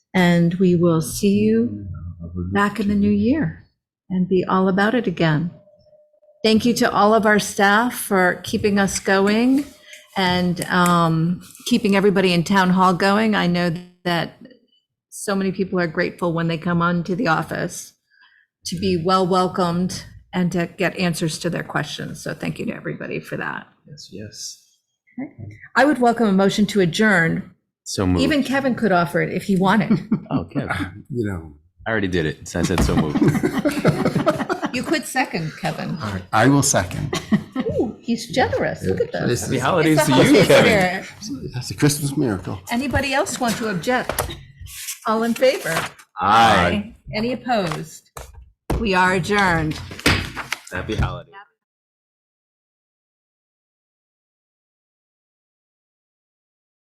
And we will see you back in the new year and be all about it again. Thank you to all of our staff for keeping us going and um, keeping everybody in town hall going. I know that so many people are grateful when they come on to the office to be well welcomed and to get answers to their questions. So thank you to everybody for that. Yes, yes. I would welcome a motion to adjourn. So moved. Even Kevin could offer it if he wanted. okay. you know. I already did it. So I said so moved. You could second, Kevin. All right, I will second. Ooh, he's generous. Look at this. This Happy is, holidays It's the to you, holiday Kevin. spirit. that's a Christmas miracle. Anybody else want to object? All in favor? Aye. Any opposed? We are adjourned. Happy holidays.